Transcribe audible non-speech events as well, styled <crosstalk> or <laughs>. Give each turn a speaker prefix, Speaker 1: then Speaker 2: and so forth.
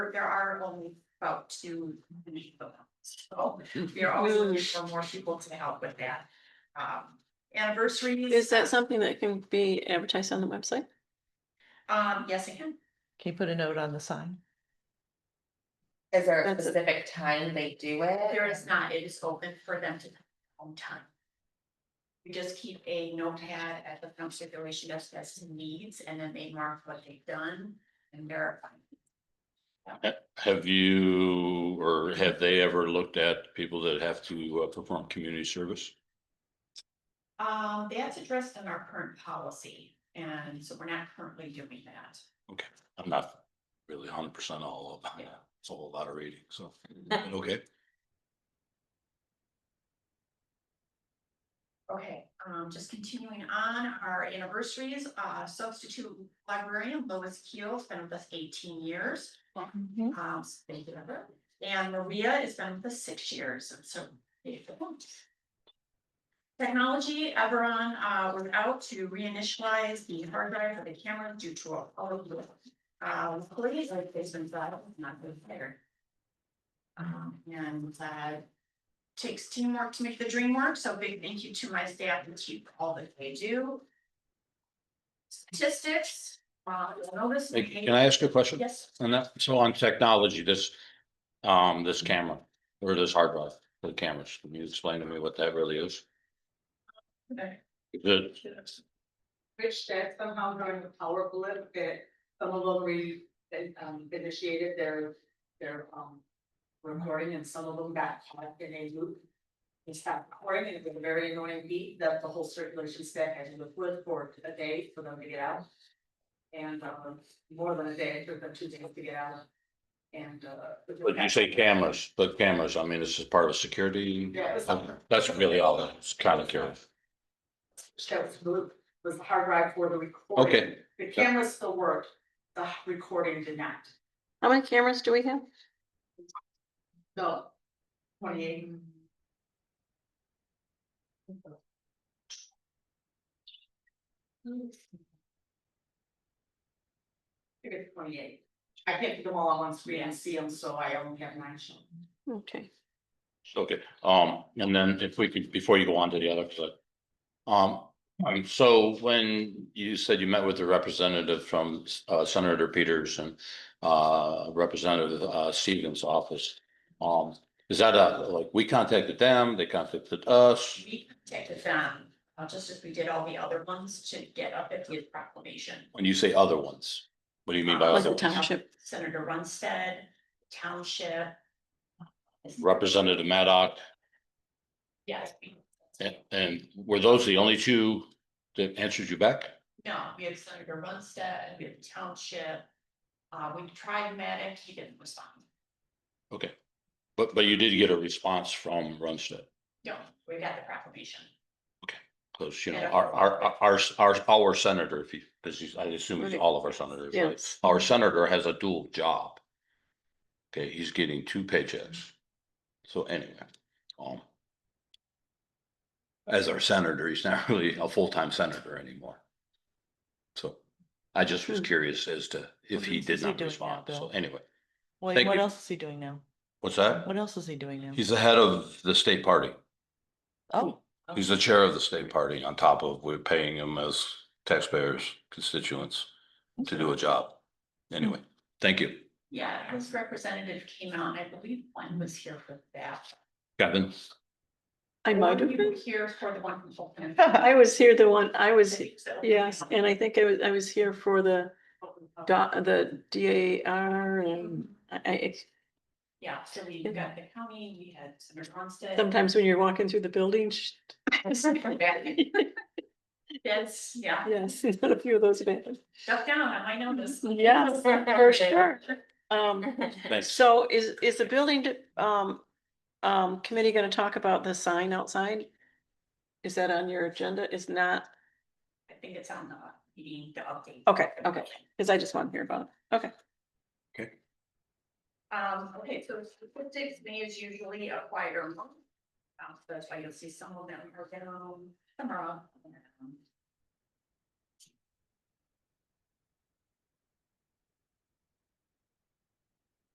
Speaker 1: we're, there are only about two. people, So we are always looking for more people to help with that. Um, anniversaries.
Speaker 2: Is that something that can be advertised on the website?
Speaker 1: Um, yes, I can.
Speaker 3: Can you put a note on the sign?
Speaker 4: Is there a
Speaker 2: That's a-
Speaker 4: specific time they do it?
Speaker 1: There is not, it is open for them to come home time. We just keep a notepad at the film circulation desk that's in needs, and then they mark what they've done and verify.
Speaker 5: Have you or have they ever looked at people that have to uh, perform community service?
Speaker 1: Um, that's addressed in our current policy, and so we're not currently doing that.
Speaker 5: I'm not really hundred percent all up on that. It's a whole lot of reading, <laughs> so, but okay.
Speaker 1: Okay, um, just continuing on our anniversaries, uh, substitute librarian Lois Keel has been with us eighteen years.
Speaker 3: Mm-hmm.
Speaker 1: Um, so thank you, Heather. And Maria has been with us six years, and so. thank you. Technology, Everon, uh, was out to reinitialize the hard drive for the camera due to a, oh, uh, please, like, there's been that, not good there. Um, and, uh, takes teamwork to make the dream work, so big thank you to my staff and chief for all that they do. Statistics, uh, you'll notice.
Speaker 5: Hey, Can I ask you a question?
Speaker 1: Yes.
Speaker 5: And that, so on technology, this, um, this camera or this hard drive, the cameras, can you explain to me what that really is?
Speaker 1: Okay.
Speaker 5: The,
Speaker 6: Rich that somehow during the power blip that some of them re, that, um, initiated their, their, um. Recording and some of them got caught in a loop. They stopped recording and it was a very annoying beat that the whole circulation staff had to live with for a day for them to get out. And, um, more than a day, it took them two days to get out. And, uh. it was
Speaker 5: but you say
Speaker 6: actually-
Speaker 5: cameras, but cameras, I mean, this is part of security.
Speaker 6: Yeah, it was something.
Speaker 5: That's really all that's kind of curious.
Speaker 6: That was blue, was the hard drive for the recording.
Speaker 5: Okay.
Speaker 6: The camera still worked, the recording did not.
Speaker 2: How many cameras do we have?
Speaker 6: No. Twenty-eight. I think it's twenty-eight. I can't put them all on one screen and see them, so I only have nine shown.
Speaker 2: Okay.
Speaker 5: Okay, um, and then if we could, before you go on to the other, because I, um, um, so when you said you met with a representative from uh, Senator Peters and uh, Representative uh, Stevens' office, um, is that a, like, we contacted them, they contacted us?
Speaker 1: We contacted them, uh, just as we did all the other ones to get up at the proclamation.
Speaker 5: When you say other ones, what do you mean by
Speaker 2: Like
Speaker 5: other
Speaker 2: the
Speaker 5: ones?
Speaker 2: township.
Speaker 1: Senator Runstead, Township.
Speaker 5: Representative Maddock,
Speaker 1: Yes.
Speaker 5: and, and were those the only two that answered you back?
Speaker 1: No, we had Senator Runstead, we had Township. Uh, we tried Maddox, he didn't respond.
Speaker 5: Okay, but, but you did get a response from Runstead?
Speaker 1: No, we got the proclamation.
Speaker 5: Cause you know,
Speaker 1: Yeah.
Speaker 5: our, our, our- our, our, our senator, if you, cause he's, I assume it's
Speaker 2: Right.
Speaker 5: all of our senators, right?
Speaker 2: Yes.
Speaker 5: Our senator has a dual job. Okay, he's getting two paychecks. So anyway, um. As our senator, he's not <laughs> really a full-time senator anymore. So I just was
Speaker 2: Hmm.
Speaker 5: curious as to if
Speaker 3: What
Speaker 5: he
Speaker 3: else is
Speaker 5: did
Speaker 3: he
Speaker 5: not
Speaker 3: doing now,
Speaker 5: respond. So
Speaker 3: Bill?
Speaker 5: anyway,
Speaker 3: Wait,
Speaker 5: Thank
Speaker 3: what
Speaker 5: you.
Speaker 3: else is he doing now?
Speaker 5: what's that?
Speaker 3: What else is he doing now?
Speaker 5: He's the head of the state party.
Speaker 3: Oh,
Speaker 5: He's the chair of the state party on top of we're paying him as taxpayers, constituents to do a job. Anyway, thank you.
Speaker 1: Yeah, his representative came out, and I believe one was here for that.
Speaker 5: Kevin,
Speaker 2: I might
Speaker 1: Or
Speaker 2: have
Speaker 1: you
Speaker 2: been.
Speaker 1: were Here for the one from Fulton.
Speaker 2: <laughs> I was here the one,
Speaker 1: I
Speaker 2: I was,
Speaker 1: think so.
Speaker 2: yes, and I think I was, I was here for the dot, the D A R and I, I,
Speaker 1: Yeah, so we got the county, we had Senator Runstead.
Speaker 2: sometimes when you're walking through the building. sh-
Speaker 1: <laughs> That's, yeah,
Speaker 2: Yes, <laughs> there's been a few of those events.
Speaker 1: shut down, I might know this.
Speaker 2: <laughs> Yes, for sure. Um,
Speaker 5: thanks.
Speaker 2: so is, is the building, de- um, um, committee gonna talk about the sign outside? Is that on your agenda? Is not,
Speaker 1: I think it's on the meeting, the update.
Speaker 2: okay, okay, cause I just want to hear about it.
Speaker 1: Um, okay, so statistics, May is usually a quieter month. Um, so that's why you'll see some of them are down, some are up. and, um,